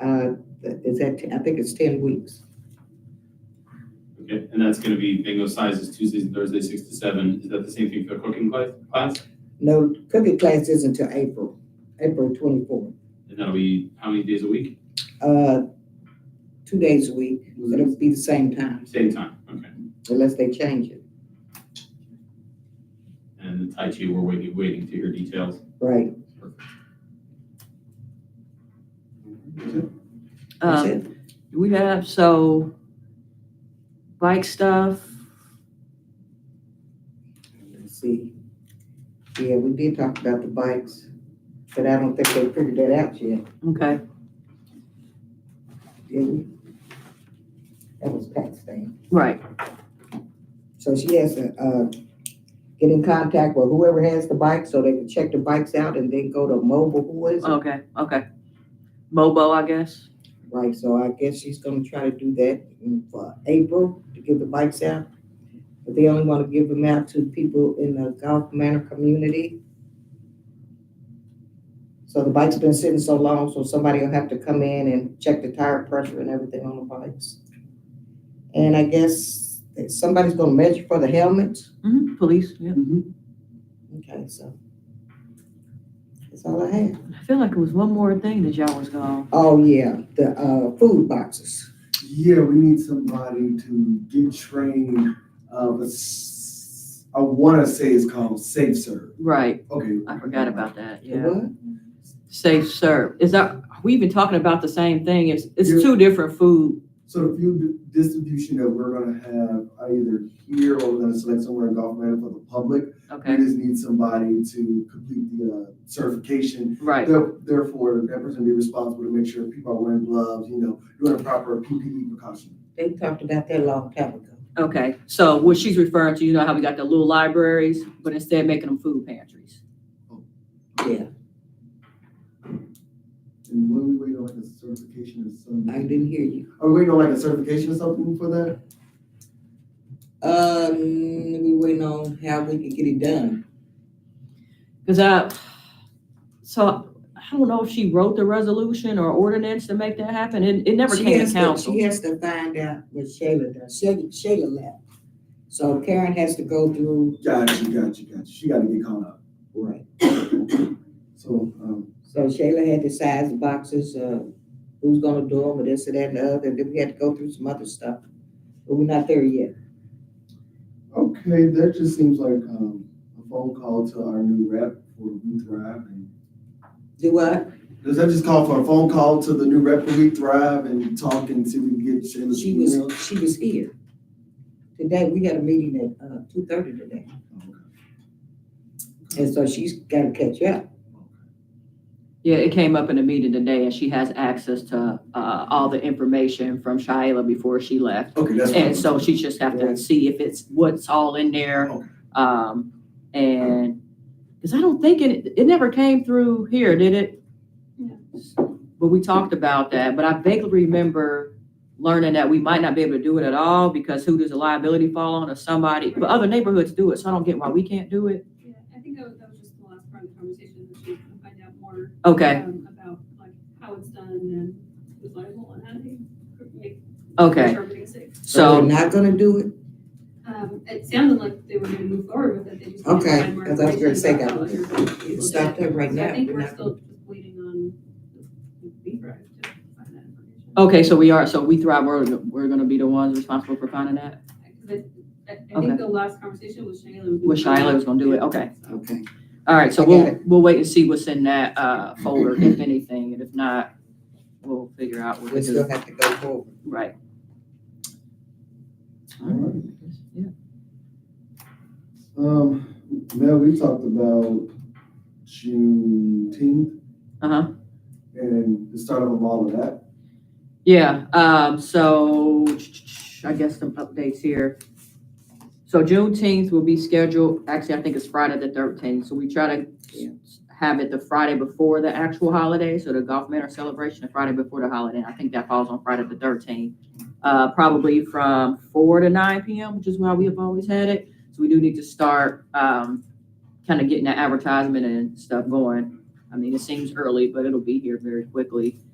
uh, is that, I think it's ten weeks. Okay, and that's gonna be bingo sizes Tuesdays and Thursdays, six to seven. Is that the same thing for cooking cla- class? No, cooking class isn't until April, April twenty-fourth, And that'll be how many days a week? uh, two days a week, it'll be the same time, Same time, okay. unless they change it, And the Tai Chi, we're waiting, waiting to hear details. right? That's Um, it. we have, so bike stuff, Let's see. Yeah, we did talk about the bikes, but I don't think they figured that out yet, okay. did we? That was Pat's thing. Right, So she has to, uh, get in contact with whoever has the bike so they can check the bikes out and then go to mobile, who is it? okay, okay. Mobo, I guess. Right, so I guess she's gonna try to do that in- for April to give the bikes out. But they only wanna give them out to people in the Gulf Manor community. So the bike's been sitting so long, so somebody will have to come in and check the tire pressure and everything on the bikes. And I guess that somebody's gonna measure for the helmets. hmm police, yeah. Okay, so. That's all I have. I feel like it was one more thing that y'all was gonna, Oh, yeah, the, uh, food boxes. Yeah, we need somebody to get trained, uh, but s- I wanna say it's called Safe Serve, right, okay. I forgot about that, The yeah. what? Safe serve, is that, are we even talking about the same thing? It's, it's Yeah. two different food, So the food di- distribution that we're gonna have either here or we're gonna select somewhere in Gulf Meadow for the public, we okay, just need somebody to complete the, uh, certification. right, There- Therefore, that person be responsible to make sure people are wearing gloves, you know, doing proper PPE precaution. They talked about that a long time ago. okay. So what she's referring to, you know how we got the little libraries, but instead making them food pantries. Yeah, And when we wait on like a certification or something, I didn't hear you. are we waiting on like a certification or something for that? Um, we waiting on how we can get it done. Cause I, so I don't know if she wrote the resolution or ordinance to make that happen. It, it never She came has to to- council. She has to find out what Shayla does. Shayla, Shayla left. So Karen has to go through, Gotcha, gotcha, gotcha. She gotta get caught up. right. So, um, So Shayla had to size the boxes, uh, who's gonna do them, and this and that and the other, and then we had to go through some other stuff. But we're not there yet. okay, that just seems like, um, a phone call to our new rep for We Thrive. and- Do what? Does that just call for a phone call to the new rep for We Thrive and talk and see if we can get Shayla's She was, email? she was here. Today, we had a meeting at, uh, two thirty today, and so she's gotta catch up. Yeah, it came up in a meeting today and she has access to, uh, all the information from Shayla before she left. Okay, that's. And so she just have to Right. see if it's, what's all in there. Okay. Um, and, cause I don't think it, it never came through here, did it? But we talked about that, but I vaguely remember learning that we might not be able to do it at all because who does the liability fall on or somebody? But other neighborhoods do it, so I don't get why we can't do it. Yeah, I think that was, that was just the last part of the conversation, that she's gonna find out more. Okay, um, About like how it's done and who's liable and how they make. okay, Sure everything's safe. We're so, not gonna do it, Um, it sounded like they were gonna move forward with it, they just. need to Okay, find more 'cause I was gonna say that. information about how other people stop did it. that right So now. I think We're we're not- still just waiting on the B drive to find that information. okay, so we are, so we thrive, we're, we're gonna be the ones responsible for finding that? Because I, I Okay. think the last conversation was Shayla. was gonna With find Shayla out. was gonna do it, okay. So- okay. All right, so I got we'll, we'll wait and see what's in that, uh, folder, if anything, and if not, we'll figure out what We to still do, have to go forward. right? Alright. Yeah. Um, now we talked about Juneteenth Uh-huh, and the start of all of that. yeah, um, so, I guess some updates here. So Juneteenth will be scheduled, actually, I think it's Friday the thirteenth, so we try to Yeah. have it the Friday before the actual holiday, so the Gulf Manor celebration, the Friday before the holiday, and I think that falls on Friday the thirteenth. Uh, probably from four to nine PM, which is why we have always had it, so we do need to start, um, kind of getting the advertisement and stuff going. I mean, it seems early, but it'll be here very quickly.